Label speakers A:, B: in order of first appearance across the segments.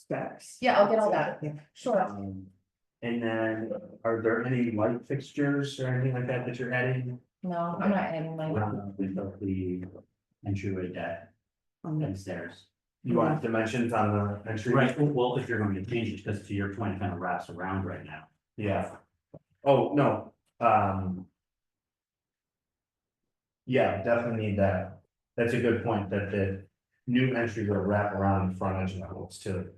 A: specs.
B: Yeah, I'll get all that,
A: Yeah.
B: sure.
C: Um, And then, are there any light fixtures or anything like that that you're adding?
B: No, I'm not adding like,
C: Um, With the- the entryway deck
A: on the-
C: and stairs. You want dimensions on the entry?
D: Right, well, if you're going to change it, because to your point, it kind of wraps around right now.
C: Yeah. Oh, no, um. Yeah, definitely need that. That's a good point, that the new entry will wrap around the front edge of the house too.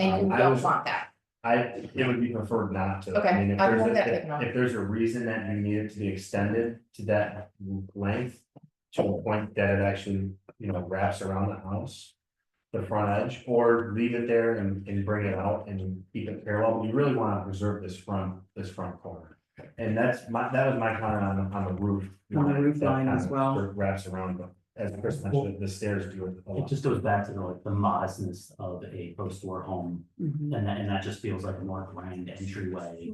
B: and you
C: Um, I
B: don't
C: was-
B: want that.
C: I, it would be preferred not to.
B: Okay,
C: I mean, if
B: I
C: there's
B: won't
C: a-
B: get
C: if-
B: written on.
C: If there's a reason that you need it to be extended to that length, to a point that it actually, you know, wraps around the house. The front edge, or leave it there and, and bring it out and keep it parallel, you really wanna preserve this front, this front corner. And that's my, that was my comment on, the- on the roof.
A: On the roof
C: That
A: line as
C: kind of
A: well.
C: Wraps around, but as Chris mentioned, the stairs do it. a
D: It
C: lot.
D: just goes back to the like the modestness of a post-war home,
A: Mhm.
D: and that, and that just feels like a more grand entryway.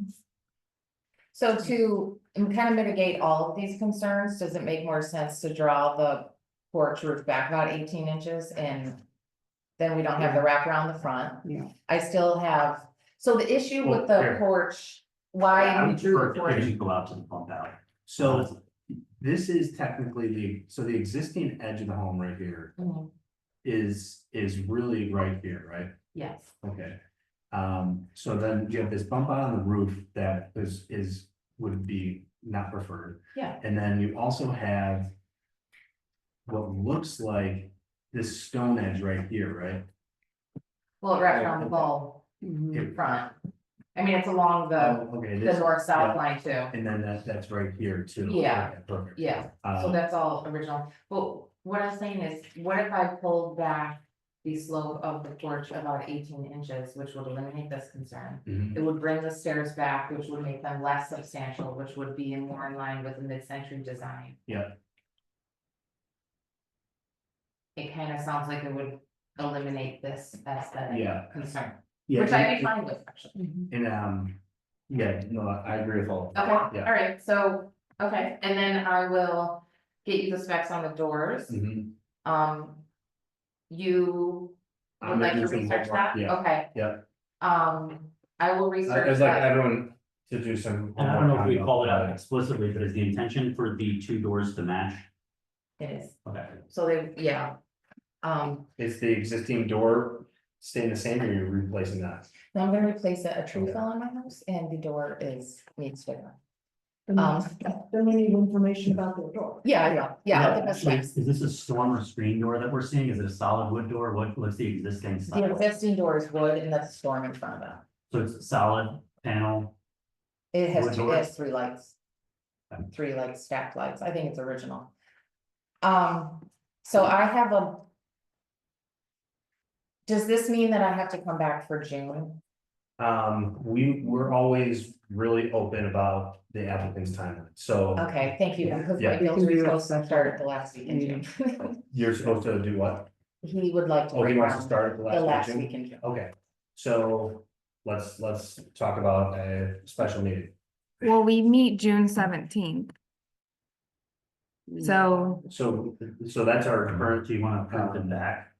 B: So to kind of mitigate all of these concerns, does it make more sense to draw the porch roof back about eighteen inches and then we don't have the wrap around the front?
A: Yeah.
B: I still have, so the issue with the
C: Well, here.
B: porch, why we
D: I'm
B: drew
D: sure
B: the
D: if if
B: porch,
D: you go out to the pump out.
C: So this is technically the, so the existing edge of the home right here
B: Mhm,
C: is, is really right here, right?
B: yes,
C: Okay. Um, so then you have this bump out on the roof that is, is, would be not preferred.
B: Yeah.
C: And then you also have what looks like this stone edge right here, right?
B: well, it wrapped around the bowl
A: Mhm.
C: It-
B: front. I mean, it's along Mm-hmm. the,
C: Oh, Okay,
B: the
C: this,
B: north south
C: yeah.
B: line too,
C: and then that, that's right here too.
B: Yeah.
C: Okay, Perfect.
B: yeah. So
C: Um,
B: that's all original, but what I'm saying is, what if I pulled back the slope of the porch about eighteen inches, which would eliminate this concern?
C: mhm.
B: It would bring the stairs back, which would make them less substantial, which would be more in line with the mid-century design.
C: Yeah.
B: It kind of sounds like it would eliminate this aesthetic
C: Yeah.
B: concern,
C: Yeah,
B: which I'd
C: it-
B: be fine with, actually.
A: Mhm.
C: And um, yeah, no, I agree with all. of that.
B: Okay, all
C: Yeah.
B: right, so, okay, and then I will get you the specs on the doors.
C: Mhm.
B: Um. You
C: I'm
B: would like to
C: making some
B: research
C: homework,
B: that?
C: Yeah,
B: Okay.
C: yeah.
B: Um, I will
C: I-
B: research
C: I'd like
B: that.
C: everyone to do some.
D: And I don't know if we
C: homework on
D: called it out
C: that.
D: explicitly, but is the intention for the two doors to match?
B: It is,
D: Okay.
B: so they, yeah. Um,
C: Is the existing door staying the same or you're replacing that?
B: now I'm gonna replace it, a tree
C: Okay.
B: fell on my house and the door is, needs to.
A: Then
B: Um.
A: then we need information about the door.
B: Yeah, I know, yeah, I think that's
D: actually,
B: right.
D: Is this a storm or screen door that we're seeing? Is it a solid wood door? What, what's the existing
B: The
D: style?
B: existing door is wood and that's a storm in front of it.
D: So it's a solid panel,
B: It
D: Wood
B: has, two-
D: door?
B: it has three lights. Three like stacked lights, I think it's original. Um, so I have a. Does this mean that I have to come back for June?
C: Um, we, we're always really open about the applicant's timeline, so
B: Okay, thank you, because
C: Yeah.
B: my builder
A: We
B: is
A: can do it
B: supposed to start at the last week in
A: in
B: June.
C: you're supposed to do what?
B: He would like to.
C: Oh, he
B: break
C: wants
B: ground
C: to start at the
B: The
C: last
B: last
C: meeting?
B: week in June.
C: Okay, so let's, let's talk about a special meeting.
E: Well, we meet June seventeenth, so
C: So, so that's our
B: Mm-hmm.
D: or
C: current,
D: do you want to
B: Uh-huh.
D: print them back?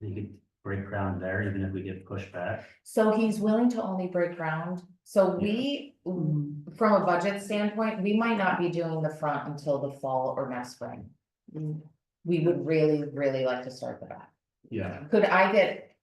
D: You could break ground there, even if we get pushed back.
B: So he's willing to only break ground, so we,
A: Mhm.
B: from a budget standpoint, we might not be doing the front until the fall or next spring. We would really, really like to start the back.
C: yeah,
B: Could I get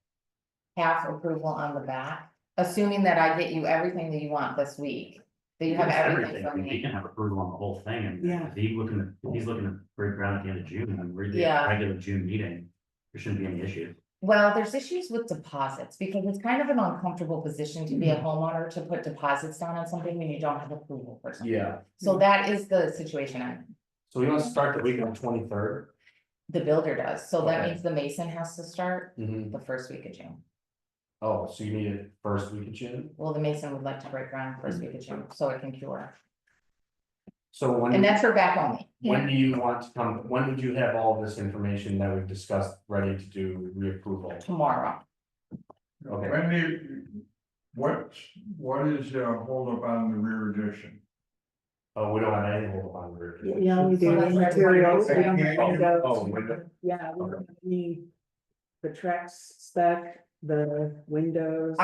B: half approval on the back, assuming that I get you everything that you want this week? That you have
D: It's
B: everything
D: I
B: from
D: mean, He
B: me?
D: can have approval on the whole thing, and
A: Yeah.
D: if he's looking, to- if he's looking to break ground at the end of June, and we're the
B: Yeah.
D: regular June meeting, there shouldn't be any issue.
B: Well, there's issues with deposits, because it's kind of an uncomfortable position to be
C: Mm-hmm.
B: a homeowner to put deposits down on something when you don't have approval for something.
C: yeah.
B: So that is the situation I'm,
C: So we want to start the week on twenty-third.
B: the builder does, so that
C: Okay.
B: means the mason has to start the first week of June.
C: Mm-hmm. Oh, so you need it first week of June?
B: Well, the mason would like to break ground
C: Mm.
B: first week of June, so it can cure,
C: So
B: and
C: when,
B: that's her back only.
C: when do you want to come, when would you have all this information that we've discussed ready to do reapproval?
B: tomorrow.
C: Okay,
F: When do, what, what is the holdup on the rear addition?
C: oh, we don't have any hold on rear.
A: Yeah, we do.
B: So that's-
A: Materials, we don't have
F: Oh,
A: windows.
C: oh, window.
A: Yeah, we don't have any, the tracks spec, the windows.